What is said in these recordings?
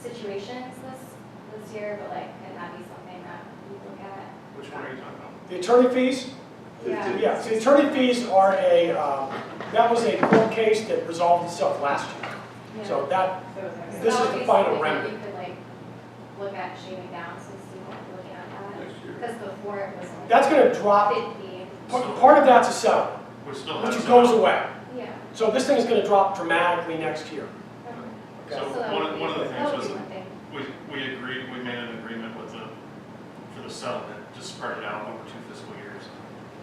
situation is this, this year, but like, could that be something that you look at? Which one are you talking about? The attorney fees, Yeah, yeah, so the attorney fees are a, um, that was a court case that resolved itself last year. yeah. So that, So this that is would the be final something that remedy. You could like, look at shaving down, so see what we're looking at next year. that, because before it was only. that's gonna drop, Fifty, par- part of that's a settlement, Which still has. which some- goes away. yeah. So this thing is gonna drop dramatically next year. So So that one would of, be- one of the that things would was, be one thing. we, we agreed, we made an agreement with the, for the settlement, just spread it out over two fiscal years.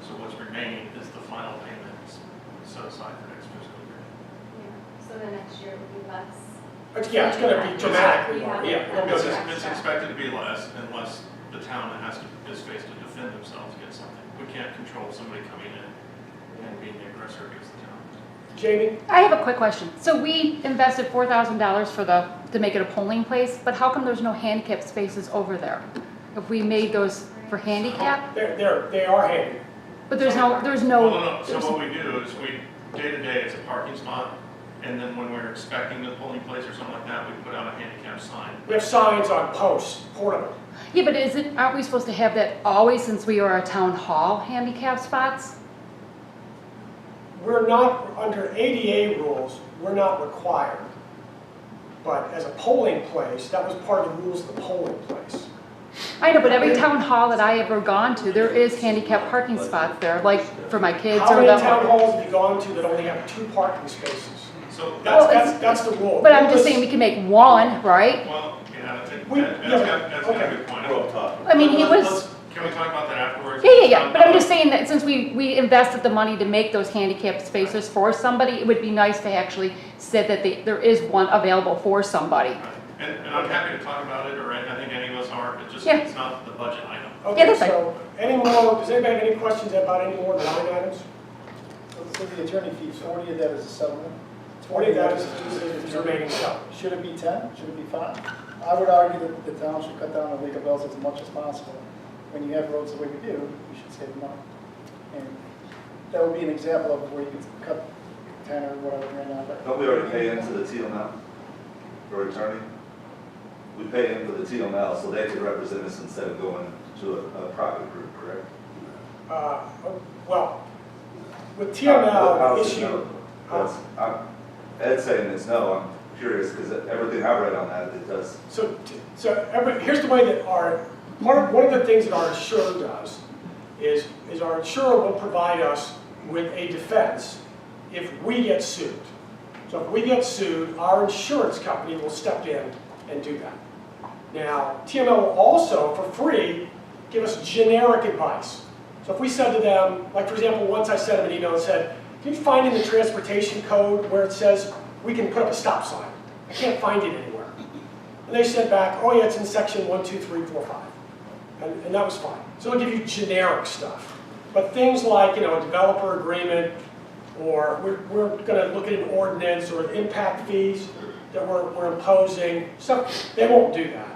So what's remaining is the final payments set aside for next fiscal year. Yeah. So then next year would be less. But yeah, it's gonna be dramatically, more. yeah, it'll It's, go down. it's expected to be less unless the town has to, is faced to defend themselves against something. We can't control somebody coming in and being the aggressor against the town. Jamie, I have a quick question. So we invested four thousand dollars for the, to make it a polling place, but how come there's no handicap spaces over there? If we made those for handicap, they're, they're, they are handy. but there's no, there's Well, no. no, no, so there's- what we do is we, day to day, it's a parking spot, and then when we're expecting the polling place or something like that, we put out a handicap sign. We have signs on posts, portable. Yeah, but isn't, aren't we supposed to have that always since we are a town hall handicap spots? We're not, under ADA rules, we're not required. But as a polling place, that was part of the rules of the polling place. I know, but every town hall that I ever gone to, there is handicap parking spots there, like for my kids How or many town the. halls have you gone to that only have two parking spaces? So, that- That's, Well, that's, it's- that's the rule. But I'm just saying, we can make one, right? well, yeah, that- that- We- yeah, that's got, that's got okay. a good point. We're all talking. I mean, he Let's- was, let's- Can we talk about that afterwards? yeah, yeah, yeah, but I'm just saying that since we, we invested the money to make those handicap spaces for somebody, it would be nice to actually say that they, there is one available for somebody. Right. And, and I'm happy to talk about it, or I I think any of us are, it's just, Yeah. it's not the budget item. Yeah, Okay, that's fine. so, any more, does anybody have any questions about any more line items? So the attorney fee, forty of that is a settlement? Twenty of that is, is is remaining settlement. Should it be ten? Should it be five? I would argue that the town should cut down on legal bills as much as possible. When you have roads the way we do, you should save money. And that would be an example of where you could cut ten or whatever right now, but. Don't we already pay into the TML for attorney? We pay into the TML so they can represent us instead of going to a, a private group, correct? Uh, well, with How- TML how's it issue, no? That's- I'm- Ed's saying it's no, I'm curious, because everything I read on that, it does, So, so every, here's the way that our, one of, one of the things that our insurer does is, is our insurer will provide us with a defense if we get sued. So if we get sued, our insurance company will step in and do that. Now, TML will also, for free, give us generic advice. So if we said to them, like for example, once I sent them an email and said, can you find in the transportation code where it says we can put up a stop sign? I can't find it anywhere. And they sent back, oh yeah, it's in section one, two, three, four, five. And, and that was fine. So it'll give you generic stuff. But things like, you know, a developer agreement, or we're, we're gonna look at an ordinance or impact fees that we're, we're imposing, stuff, they won't do that.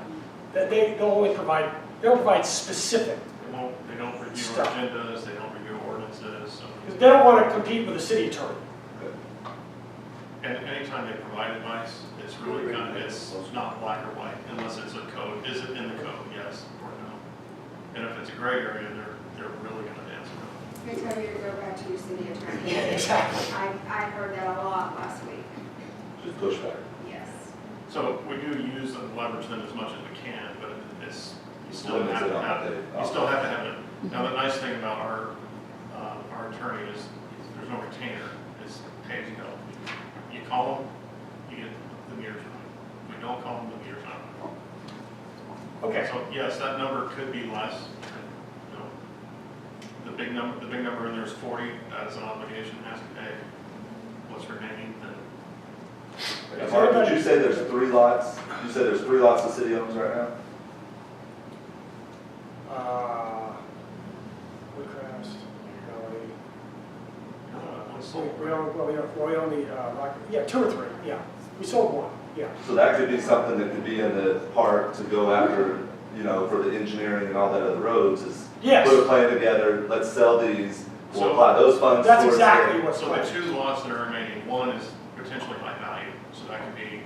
That they, they'll only provide, they'll provide specific. They won't, they don't review Stop. agendas, they don't review ordinances, so. Because they don't wanna compete with the city attorney. And anytime they provide advice, it's really kind of, it's not black or white, unless it's a code, is it in the code, yes or no? And if it's a gray area, they're, they're really gonna answer no. Victoria, you to go back to your city attorney. Exactly. I, I heard that a lot last week, just push back. yes. So we do use and leverage them as much as we can, but it's, you still Limits have it to on have, what it. they- you still have to have it. Now, the nice thing about our, uh, our attorney is, there's no retainer, it's pay as you go. You call them, you get the meter time. If we don't call them, the meter time. Okay, So, yes, that number could be less, you know. The big number, the big number in there is forty, that is an obligation, has to pay what's remaining, then. Mark, did you say there's three lots, you said there's three lots the city owns right now? uh, Woodcrest, Valley. uh, what's the- So we own, well, we own, well, we own the, uh, Rock- yeah, two or three, yeah. We sold one, yeah. So that could be something that could be in the park to go after, you know, for the engineering and all that of the roads is Yes. put a plan together, let's sell these, So- we'll apply those funds towards. That's exactly it. what's So the left. two lots that are remaining, one is potentially high value, so that could be